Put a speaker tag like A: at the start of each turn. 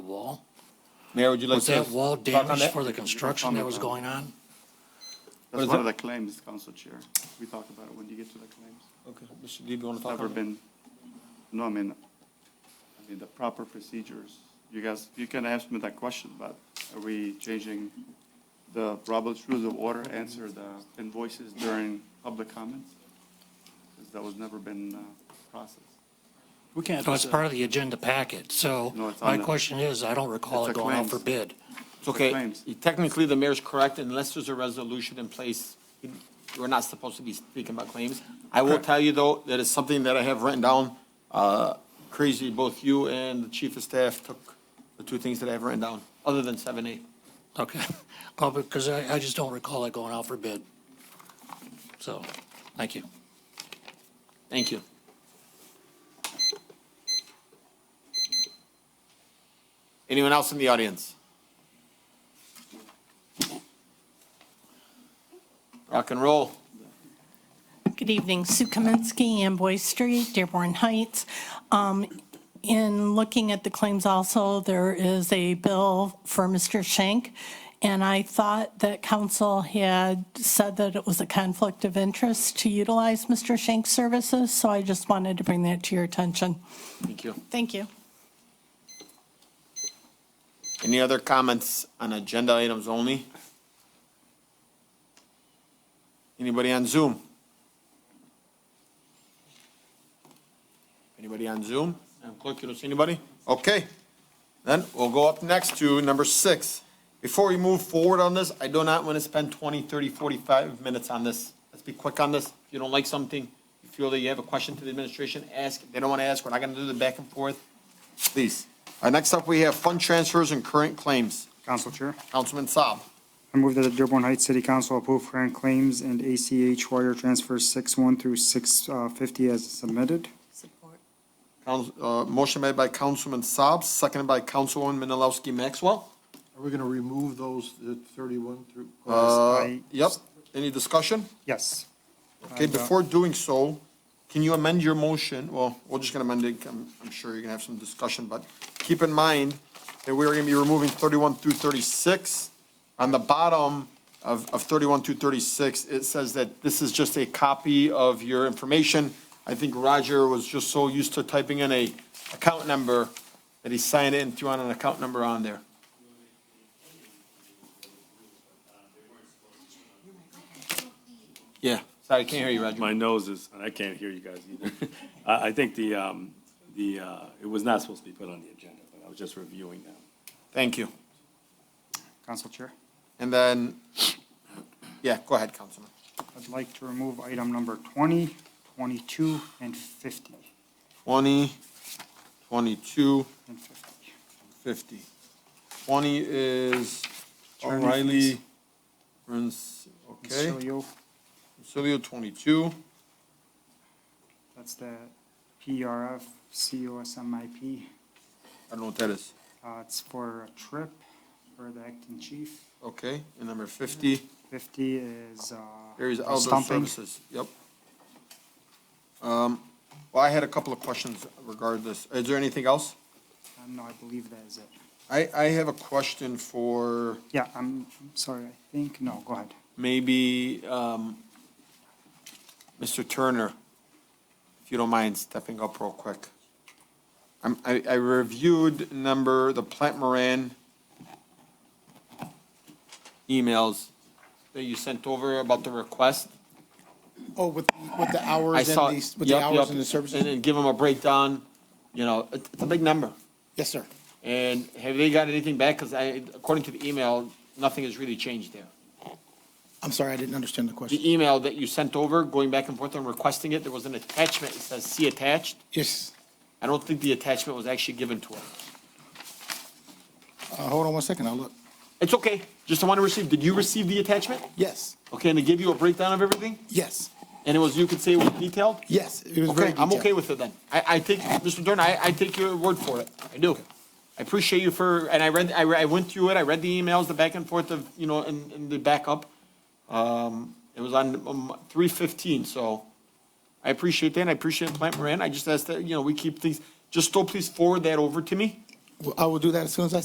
A: Mayor, would you like
B: Was
A: to?
B: that wall
A: talk on
B: damaged
A: that?
B: for the construction that was going on?
A: What is
C: That's one
A: it?
C: of the claims, Council Chair. We talk about it when you get to the claims.
A: Okay, Mr. Deeb, you want to talk
C: Never
A: on that?
C: been, no, I mean, I mean, the proper procedures. You guys, you can ask me that question, but are we changing the Robert's Rules of Order, answer the invoices during public comments? Because that was never been, uh, processed.
B: We can't. So it's part of the agenda packet, so
C: No, it's on
B: my
C: the-
B: question is, I don't recall
C: It's
B: it
C: a
B: going out for
C: claims.
B: bid.
A: It's okay.
C: claims.
A: Technically, the mayor's correct unless there's a resolution in place. We're not supposed to be speaking about claims. I will tell you, though, that it's something that I have written down. Uh, Crazy, both you and the chief of staff took the two things that I have written down, other than seven A.
B: Okay, well, because I, I just don't recall it going out for bid. So, thank you.
A: Thank you. Anyone else in the audience? Rock and roll.
D: Good evening, Sue Kaminsky, Amboy Street, Dearborn Heights. Um, In looking at the claims also, there is a bill for Mr. Schenk, and I thought that council had said that it was a conflict of interest to utilize Mr. Schenk's services, so I just wanted to bring that to your attention.
A: Thank you.
D: Thank you.
A: Any other comments on agenda items only? Anybody on Zoom? Anybody on Zoom? Madam Clerk, you don't see anybody? Okay. Then we'll go up next to number six. Before we move forward on this, I do not want to spend 20, 30, 45 minutes on this. Let's be quick on this. If you don't like something, you feel that you have a question to the administration, ask. If they don't want to ask, we're not going to do the back and forth. Please. All right, next up, we have fund transfers and current claims.
E: Council Chair,
A: Councilman Saab.
E: I move that the Dearborn Heights City Council approve current claims and ACH wire transfers 61 through 650 as submitted.
F: Support.
A: Couns- uh, Motion made by Councilman Saab, seconded by Councilwoman Menalowski Maxwell.
G: Are we going to remove those uh, 31 through?
A: Uh,
E: I-
A: Yep, any discussion?
E: Yes.
A: Okay, before doing so, can you amend your motion? Well, we're just gonna amend it, I'm, I'm sure you're gonna have some discussion, but keep in mind that we're gonna be removing thirty-one through thirty-six. On the bottom of, of thirty-one through thirty-six, it says that this is just a copy of your information. I think Roger was just so used to typing in a account number that he signed it and threw on an account number on there. Yeah, sorry, I can't hear you, Roger.
H: My nose is, and I can't hear you guys either. I, I think the, um, the, uh, it was not supposed to be put on the agenda, but I was just reviewing them.
A: Thank you.
E: Council Chair,
A: And then, yeah, go ahead, Councilman.
E: I'd like to remove item number 20, 22, and 50,
A: 20, 22,
E: and 50.
A: 50. 20 is
E: Attorney
A: O'Reilly,
E: fees.
A: Rens, okay.
E: Consilio,
A: Consilio, 22.
E: that's the PRF COSMIP.
A: I don't know what that is.
E: Uh, It's for a trip for the acting chief.
A: Okay, and number 50,
E: 50 is uh,
A: there is outdoor
E: stumping.
A: services. Yep. Um, Well, I had a couple of questions regarding this. Is there anything else?
E: Uh, No, I believe that is it.
A: I, I have a question for
E: Yeah, I'm I'm sorry, I think, no, go ahead.
A: maybe um, Mr. Turner, if you don't mind stepping up real quick. I'm- I I reviewed number, the Plant Moran emails that you sent over about the request.
I: Oh, with, with the
A: I
I: hours and
A: saw.
I: the, with the
A: Yep,
I: hours
A: yep.
I: and the
A: And
I: services?
A: then give them a breakdown, you know, it- it's a big number.
I: Yes, sir.
A: And have they got anything back? Because I, according to the email, nothing has really changed there.
I: I'm sorry, I didn't understand the question.
A: the email that you sent over, going back and forth and requesting it, there was an attachment, it says see attached.
I: Yes,
A: I don't think the attachment was actually given to us.
I: uh, hold on one second, I'll look.
A: It's okay, just I want to receive, did you receive the attachment?
I: Yes,
A: Okay, and it gave you a breakdown of everything?
I: yes,
A: And it was, you could say it was detailed?
I: yes, it was very
A: Okay, I'm okay
I: detailed.
A: with it then. I, I take, Mr. Dorn, I, I take your word for it. I do. I appreciate you for, and I read, I, re- I went through it, I read the emails, the back and forth of, you know, and, and the backup. Um, it was on, um, three fifteen, so I appreciate that, and I appreciate Plant Moran. I just ask that, you know, we keep things, just still please forward that over to me.
I: Well, I will do that as soon as I